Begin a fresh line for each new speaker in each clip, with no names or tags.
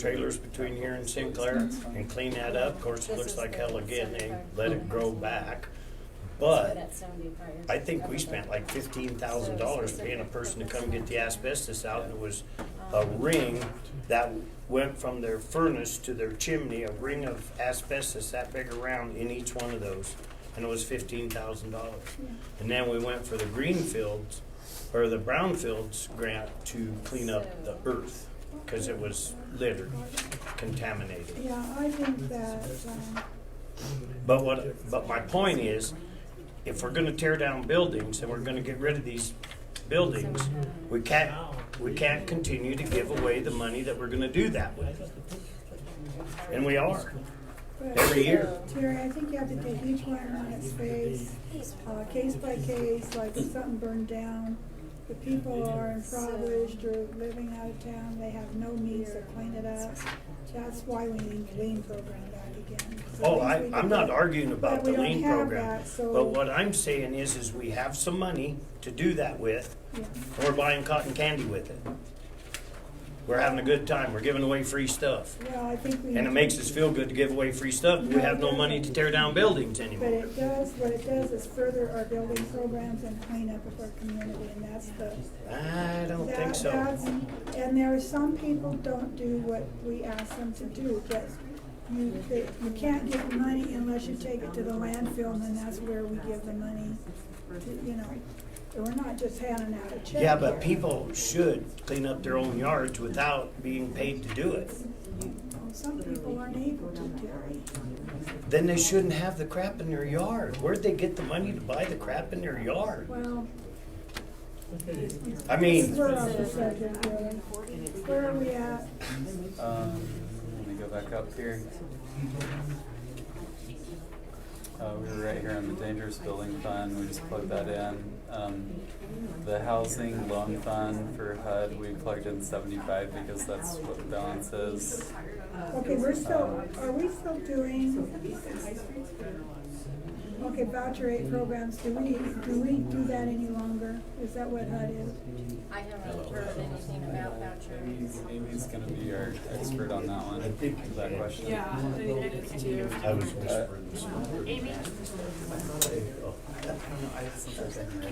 trailers between here and Sinclair and clean that up. Of course, it looks like hell again, they let it grow back. But I think we spent like fifteen thousand dollars paying a person to come get the asbestos out, and it was a
Um,
ring that went from their furnace to their chimney, a ring of asbestos that big around in each one of those, and it was fifteen thousand dollars. And then we went for the greenfields, or the brownfields grant to clean up the earth, because it was littered, contaminated.
Yeah, I think that, um,
But what, but my point is, if we're gonna tear down buildings and we're gonna get rid of these
um,
buildings, we can't, we can't continue to give away the money that we're gonna do that with. And we are,
but.
every year.
Terry, I think you have to take each one on its face, uh, case by case, like if something burned down, the people are impoverished or living out of town, they have no means to clean it up. That's why we need the lean program back again. So
Oh,
at
I,
least we
I'm
can
not
get-
arguing about
but
the
we don't
lean
have
program,
that, so-
but what I'm saying is, is we have some money to do that with,
Yeah.
and we're buying cotton candy with it. We're having a good time, we're giving away free stuff,
Well, I think we.
and it
need
makes
to-
us feel good to give away free stuff, but we have no money to tear down buildings
But
anymore.
it does, what it does is further our building programs and clean up of our community, and that's the
I don't
That-
think so.
that's- And there are some people don't do what we ask them to do, but you, they, you can't get money unless you take it to the landfill, and then that's where we give the money to, you know. We're not just handing out a check.
Yeah, but
here.
people should clean up their own yards without being paid to do it.
Some people aren't able to, Terry.
Then they shouldn't have the crap in their yard. Where'd they get the money to buy the crap in their yard?
Well,
I
this is
mean,
where I'm subject, really. Where are we at?
Um, let me go back up here. Uh, we were right here on the dangerous building fund, we just plugged that in. Um, the housing loan fund for HUD, we plugged in seventy-five because that's what the balance is.
Okay, we're still, are we still doing? Okay, voucher aid programs, do we, do we do that any longer? Is that what HUD is?
I haven't heard anything about
Amy's,
vouchers.
Amy's gonna be our expert on that one, that question.
Yeah, I think it is too.
I was whispering this oh.
Amy,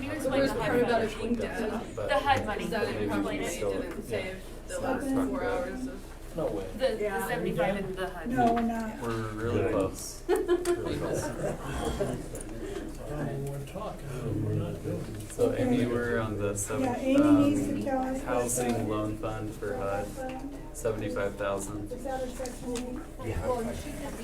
can you
The
explain the
worst part
HUD
about
money?
it being dead
The HUD money,
is
can
that
you
it
explain
probably
it?
didn't save the
Stop
last
it.
four hours of.
No way.
The, the
Yeah.
seventy-five and the HUD.
No, we're not.
We're really close. Really close. So Amy, we're on the seven,
Yeah, Amy needs to tell
um,
us.
housing loan fund for HUD, seventy-five thousand.
Is that a section meeting?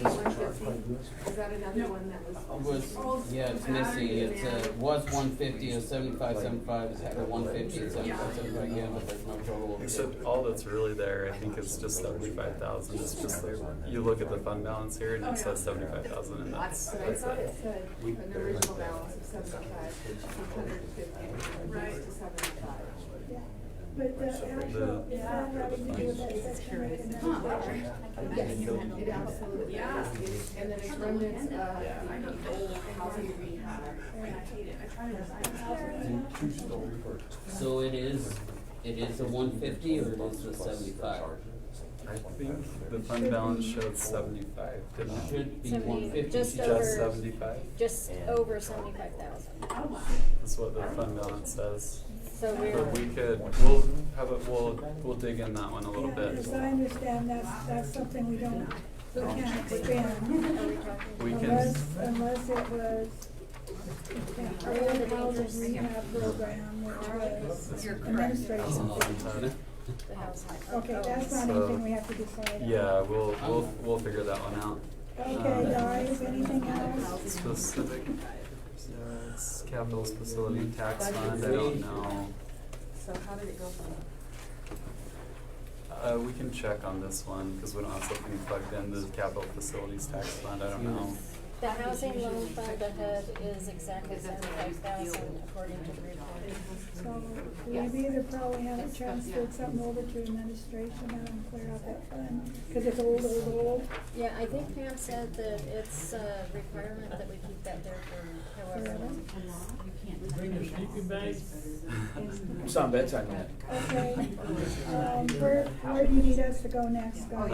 Is that another one that was?
Was, yeah, it's missing, it's, uh, was one fifty, it's seventy-five, seventy-five, it's at one fifty, it's seventy-five, seventy-five again, but there's no total.
So all that's really there, I think, is just seventy-five thousand, it's just there, you look at the fund balance here and it says seventy-five thousand and that's,
But I
that's
thought it
it.
said an original balance of seventy-five, two hundred and fifty, reduced to seventy-five.
Yeah. But the actual, is that having to do with that section right in there?
Yes, it absolutely is. And then uh, it's remnants of the old housing rehab. And I hate it, I try to design
So it is, it is the one fifty or it is the seventy-five?
I think the fund balance showed seventy-five, didn't it?
Should be
Seventy-
one fifty.
just over-
Just seventy-five,
Just over seventy-five thousand,
is what the fund balance says.
so
But we
we're,
could, we'll have it, we'll, we'll dig in that one a little
Yeah,
bit.
As I understand, that's, that's something we don't, we can't expand.
are we talking,
We can,
Unless, unless it was an early housing rehab program, which was administration.
the Oh, house?
Okay, that's not
So-
anything we have to decide on.
yeah, we'll, um, we'll, we'll figure that one out. Um,
Okay, guys, anything else?
Specific, uh, it's capital facility tax fund, I don't know.
So how did it go from?
Uh, we can check on this one, cause we don't have something plugged in, the capital facilities tax fund, I don't know.
The housing loan fund, the HUD is exactly seventy-five thousand according to the report.
So we've either probably haven't transferred something over to administration and clear out that fund, because it's old, old, old.
Yeah, I think Pam said that it's a requirement that we keep that there for however long.
Bring your sleeping bags.
Okay, um, where, where do you need us to go next, guys?